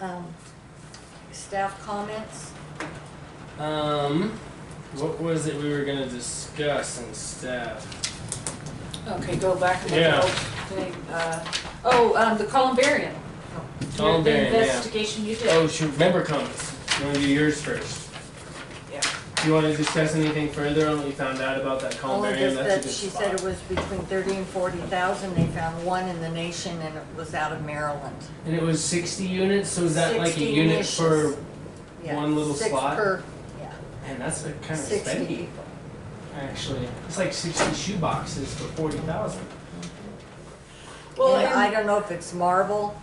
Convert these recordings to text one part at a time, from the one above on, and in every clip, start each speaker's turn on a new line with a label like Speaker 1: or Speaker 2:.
Speaker 1: um, staff comments?
Speaker 2: Um, what was it we were gonna discuss and stuff?
Speaker 1: Okay, go back and look
Speaker 2: Yeah.
Speaker 1: at the whole thing. Uh, oh, um, the columbarium.
Speaker 2: Columbarium,
Speaker 1: The
Speaker 2: yeah.
Speaker 1: investigation you did.
Speaker 2: Oh, shoot, member comments. You wanna do yours first?
Speaker 1: Yeah.
Speaker 2: Do you wanna discuss anything further on what you found out about that
Speaker 3: Only
Speaker 2: columbarium?
Speaker 3: just
Speaker 2: Oh, That's a
Speaker 3: Oh, that
Speaker 2: good
Speaker 3: she
Speaker 2: spot.
Speaker 3: said it was between thirty and forty thousand, they found one in the nation and it was out of Maryland.
Speaker 2: And it was sixty units, so is that like a
Speaker 3: 60
Speaker 2: unit for,
Speaker 3: niches. Yeah,
Speaker 2: One little
Speaker 3: six
Speaker 2: slot?
Speaker 3: per-
Speaker 2: man, that's like kind of
Speaker 3: Sixty
Speaker 2: spendy,
Speaker 3: people.
Speaker 2: actually. It's like sixty shoe boxes for forty thousand.
Speaker 1: Well,
Speaker 3: And I
Speaker 1: and
Speaker 3: don't know if it's marble,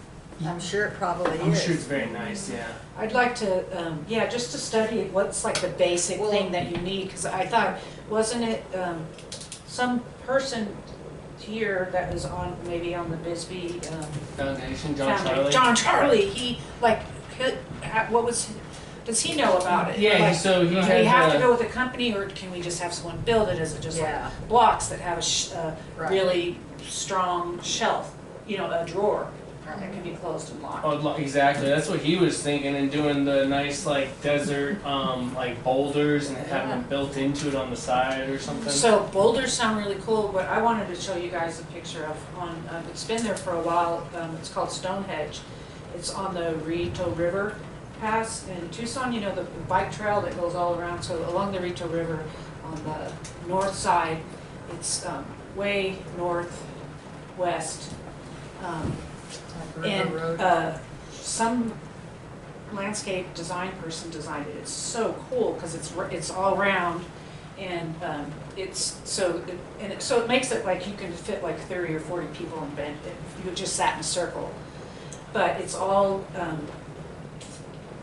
Speaker 3: I'm sure it probably
Speaker 2: I'm sure it's
Speaker 3: is.
Speaker 2: very nice, yeah.
Speaker 1: I'd like to, um, yeah, just to study it, what's like the basic
Speaker 3: Well-
Speaker 1: thing that you need, cause I thought, wasn't it, um, some person here that was on, maybe on the Bisbee, um,
Speaker 2: Foundation, John
Speaker 1: foundry-
Speaker 2: Charlie.
Speaker 1: John Charlie, he, like, he- ha- what was, does he know about it?
Speaker 2: Yeah,
Speaker 1: Like,
Speaker 2: he- so he
Speaker 1: Do
Speaker 2: had
Speaker 1: we have to
Speaker 2: a-
Speaker 1: go with a company, or can we just have someone build it, is it just like
Speaker 3: Yeah,
Speaker 1: blocks that have a sh- uh, a
Speaker 3: Right.
Speaker 1: really strong shelf, you know, a drawer that
Speaker 3: right.
Speaker 1: can be closed and locked.
Speaker 2: Oh, lo- exactly. That's what he was thinking and doing the nice like desert um like boulders and having them built into it on the side or something.
Speaker 1: So boulders sound really cool, but I wanted to show you guys a picture of on, um, it's been there for a while, um, it's called Stonehenge. It's on the Rito River Pass in Tucson, you know, the bike trail that goes all around, so along the Rito River on the north side, it's, um, way northwest. Um,
Speaker 3: Like River
Speaker 1: And
Speaker 3: Road.
Speaker 1: uh, some landscape design person designed it. It's so cool because it's, r- it's all round and um, it's, so, it- and it, so it makes it like you can fit like 30 or 40 people in bed if you just sat in a circle. But it's all, um,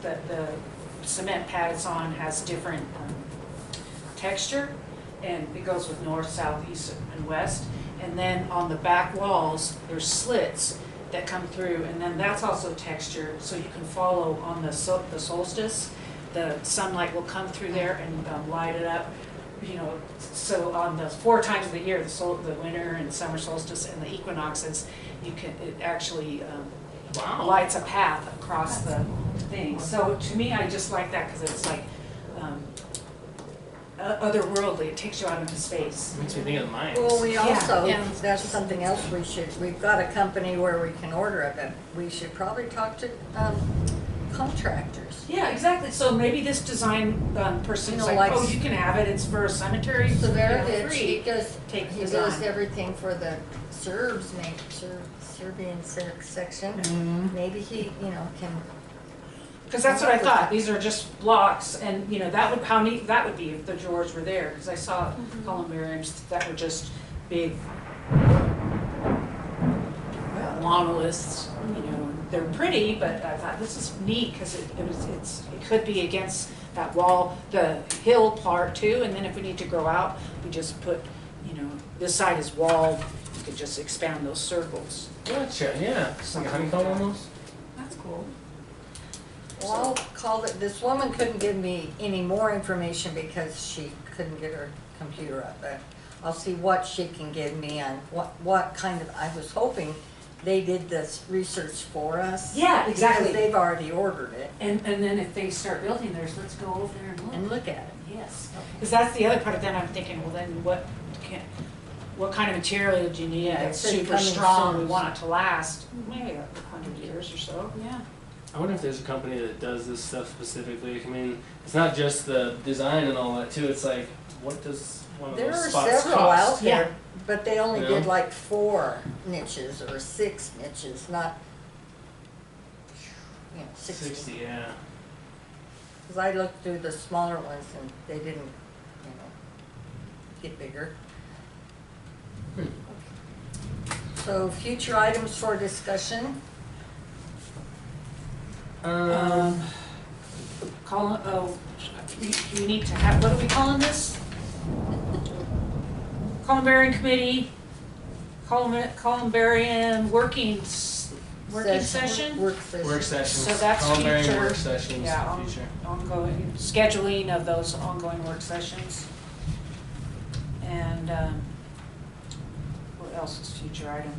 Speaker 1: the, the cement pad it's on has different um, texture and it goes with north, south, east, and west. And then on the back walls, there's slits that come through, and then that's also textured, so you can follow on the sol- the solstice. The sunlight will come through there and um, light it up, you know, so on the four times of the year, the sol, the winter and summer solstice and the equinoxes, you can, it actually um, lights a path across the thing. So to me, I just like that, because it's like um, o- otherworldly, it takes you out into space.
Speaker 2: makes me think of the mines.
Speaker 3: Well, we
Speaker 1: Yeah,
Speaker 3: also,
Speaker 1: yeah.
Speaker 3: that's something else we should, we've got a company where we can order it, but we should probably talk to, um, contractors.
Speaker 1: Yeah, exactly. So maybe this design um, person's
Speaker 3: You know,
Speaker 1: like,
Speaker 3: like-
Speaker 1: oh, you can have it. It's for a cemetery.
Speaker 3: So there it
Speaker 1: you know,
Speaker 3: is,
Speaker 1: free."
Speaker 3: he does,
Speaker 1: Take
Speaker 3: he
Speaker 1: design.
Speaker 3: does everything for the Serbs, maybe, Ser- Serbian se- section. Maybe he, you know, can,
Speaker 1: Because that's what I thought, these are just blocks, and, you know, that would, how neat that would be if the drawers were there, because I saw columbariums that were just big long lists, you know, they're pretty, but I thought, this is neat, because it, it was, it's, it could be against that wall, the hill part too, and then if we need to grow out, we just put, you know, this side is walled, we could just expand those circles.
Speaker 2: Gotcha, yeah. It's like a honeycomb almost.
Speaker 1: That's cool.
Speaker 3: well, I'll call it, this woman couldn't give me any more information because she couldn't get her computer up, but I'll see what she can give me on what, what kind of, I was hoping they did this research for us.
Speaker 1: Yeah, exactly.
Speaker 3: Because they've already ordered it,
Speaker 1: And, and then if they start building theirs, let's go over there and look.
Speaker 3: and look at it.
Speaker 1: Yes, because that's the other part of that I'm thinking, well then what can, what kind of material do you need
Speaker 3: Yeah, it
Speaker 1: that's
Speaker 3: said
Speaker 1: super
Speaker 3: coming
Speaker 1: strong, we
Speaker 3: soon.
Speaker 1: want it to last, maybe a hundred years or so, yeah.
Speaker 2: I wonder if there's a company that does this stuff specifically. I mean, it's not just the design and all that too. It's like what does one of
Speaker 3: There
Speaker 2: those
Speaker 3: are
Speaker 2: spots
Speaker 3: several out
Speaker 2: cost?
Speaker 1: Yeah.
Speaker 3: there, but they only
Speaker 2: Yeah.
Speaker 3: did like four niches or six niches, not, you know, sixty.
Speaker 2: Sixty, yeah.
Speaker 3: Cause I looked through the smaller ones and they didn't, you know, get bigger.
Speaker 2: Hmm.
Speaker 3: So future items for discussion,
Speaker 2: Um,
Speaker 1: Call, oh, we, we need to have, what are we calling this? Columbarium Committee, Colum- Columbarium Working, S- Working Session?
Speaker 3: work session.
Speaker 2: work sessions.
Speaker 1: So that's
Speaker 2: Columbarium
Speaker 1: future-
Speaker 2: work sessions
Speaker 1: Yeah,
Speaker 2: in
Speaker 1: on-
Speaker 2: the future.
Speaker 1: ongoing, scheduling of those ongoing work sessions. And um, what else is future item?